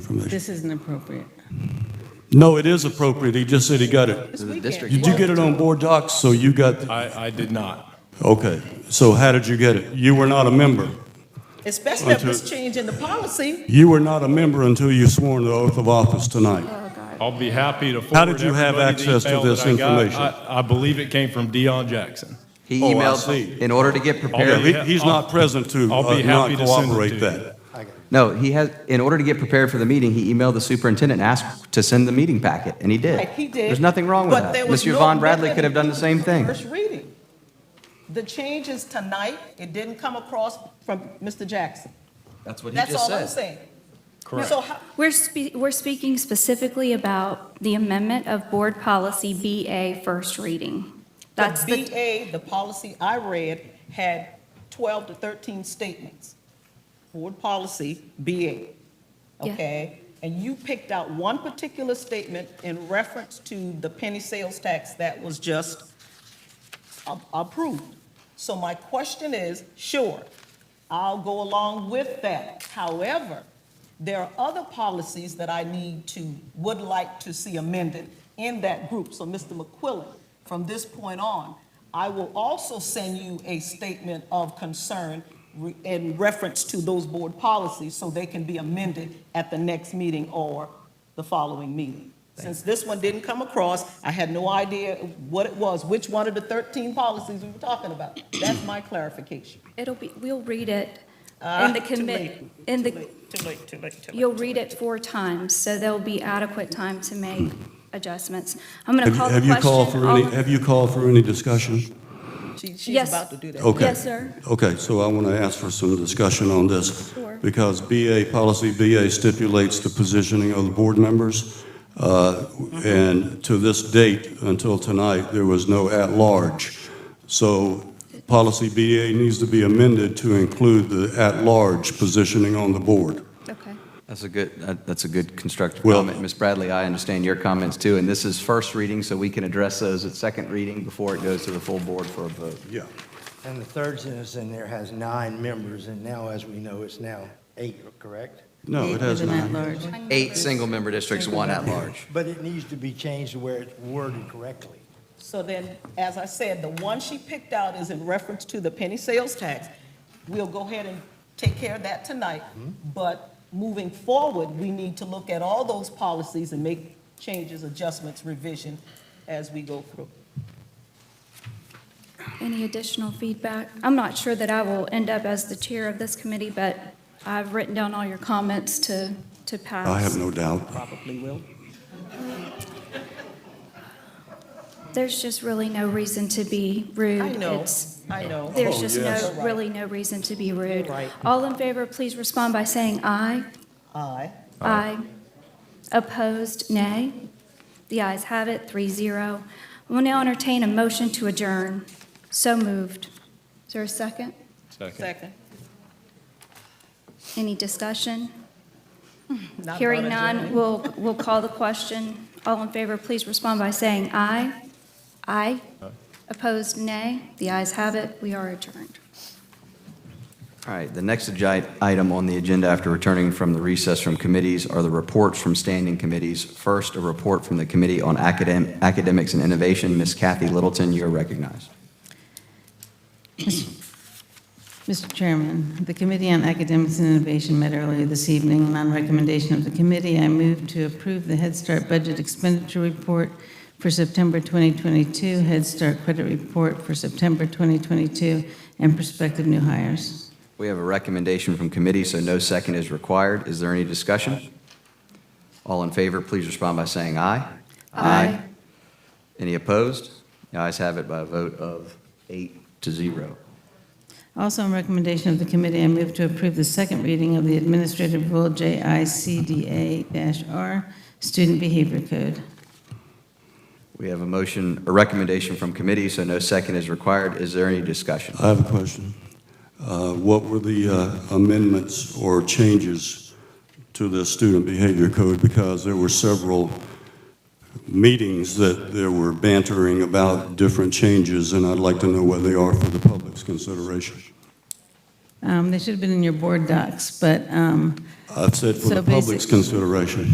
information. This isn't appropriate. No, it is appropriate. He just said he got it. This weekend. district- Did you get it on board docs? So you got, I, I did not. okay. So how did you get it? You were not a member. Especially if Until- it's changing the policy. You were not a member until you swore the oath of office tonight. I'll be happy to forward. How did you have everybody the access to email this that I got. information? I, I believe it came from Dion Jackson. He Oh, I emailed, see. in order to get Yeah, prepared, he- He's not present to I'll uh, be not happy to send it to cooperate you. that. no, he has, in order to get prepared for the meeting, he emailed the superintendent, and asked to send the meeting packet, and he did. Right, he did. There's nothing wrong with But that. there was Mr. no Von Bradley method could have done the to same thing. First reading. The changes tonight, it didn't come across from Mr. Jackson. That's what That's all I'm saying. So how, We're, spe- we're speaking specifically about the amendment of Board Policy BA first reading. That's the the, BA, the policy I read, had 12 to 13 statements. Board policy, BA, Yeah. okay? And you picked out one particular statement in reference to the penny sales tax that was just a- approved. So my question is, sure, I'll go along with that. However, there are other policies that I need to, would like to see amended in that group. So, Mr. McQuillan, from this point on, I will also send you a statement of concern re- in reference to those board policies so they can be amended at the next meeting or the following meeting. Since this one didn't come across, I had no idea what it was, which one of the 13 policies we were talking about. That's my clarification. it'll be, we'll read it Ah, in the too commit, late, in Too the, late, too late, too late, too late. you'll read it four times, so there'll be adequate time to make adjustments. I'm Have going to you- call the Have question. you called for All any, in- have you called for any discussion? She- She's Yes. about to do that. Okay. Yes, sir. Okay, so I want to ask for some discussion on this. Sure. Because BA, policy BA stipulates the positioning of the board members. uh, And to this date, until tonight, there was no at-large. So policy BA needs to be amended to include the at-large positioning on the board. Okay. That's a good, that- that's a good constructive Well- comment. Ms. Bradley, I understand your comments too, and this is first reading, so we can address those at second reading before it goes to the full board for a vote. Yeah. And the third sentence in there has nine members, and now, as we know, it's now eight, correct? No, it has Even not. at large. Eight single-member districts, one at large. But it needs to be changed to where it's worded correctly. So then, as I said, the one she picked out is in reference to the penny sales tax. We'll go ahead and take care of that tonight. But moving forward, we need to look at all those policies and make changes, adjustments, revision as we go through. Any additional feedback? I'm not sure that I will end up as the chair of this committee, but I've written down all your comments to, to pass. I have no doubt. Probably will. There's just really no reason to be rude. I know, It's- I know. There's just You're no, right. really no reason to be rude. You're right. All in favor, please respond by saying aye. Aye. Aye. Opposed, nay. The ayes have it, three zero. We'll now entertain a motion to adjourn. So moved. Is there a second? Second. Second. Any discussion? Not Hearing voted, Jeremy. none, we'll, we'll call the question. All in favor, please respond by saying aye. Aye. Opposed, nay. The ayes have it, we are adjourned. All right, the next agi- item on the agenda after returning from the recess from committees are the reports from standing committees. First, a report from the Committee on Academ- Academics and Innovation. Ms. Kathy Littleton, you're recognized. Mr. Chairman, the Committee on Academics and Innovation met earlier this evening, and on recommendation of the committee, I move to approve the Head Start Budget Expenditure Report for September 2022, Head Start Credit Report for September 2022, and prospective new hires. We have a recommendation from committee, so no second is required. Is there any discussion? All in favor, please respond by saying aye. Aye. Any opposed? The ayes have it by a vote of eight to zero. Also, on recommendation of the committee, I move to approve the second reading of the Administrative Rule JICDA-R, Student Behavior Code. We have a motion, a recommendation from committee, so no second is required. Is there any discussion? I have a question. Uh, What were the uh, amendments or changes to the student behavior code? Because there were several meetings that there were bantering about different changes, and I'd like to know what they are for the public's consideration. Um, They should have been in your board docs, but um, I've said for So the public's basic- consideration.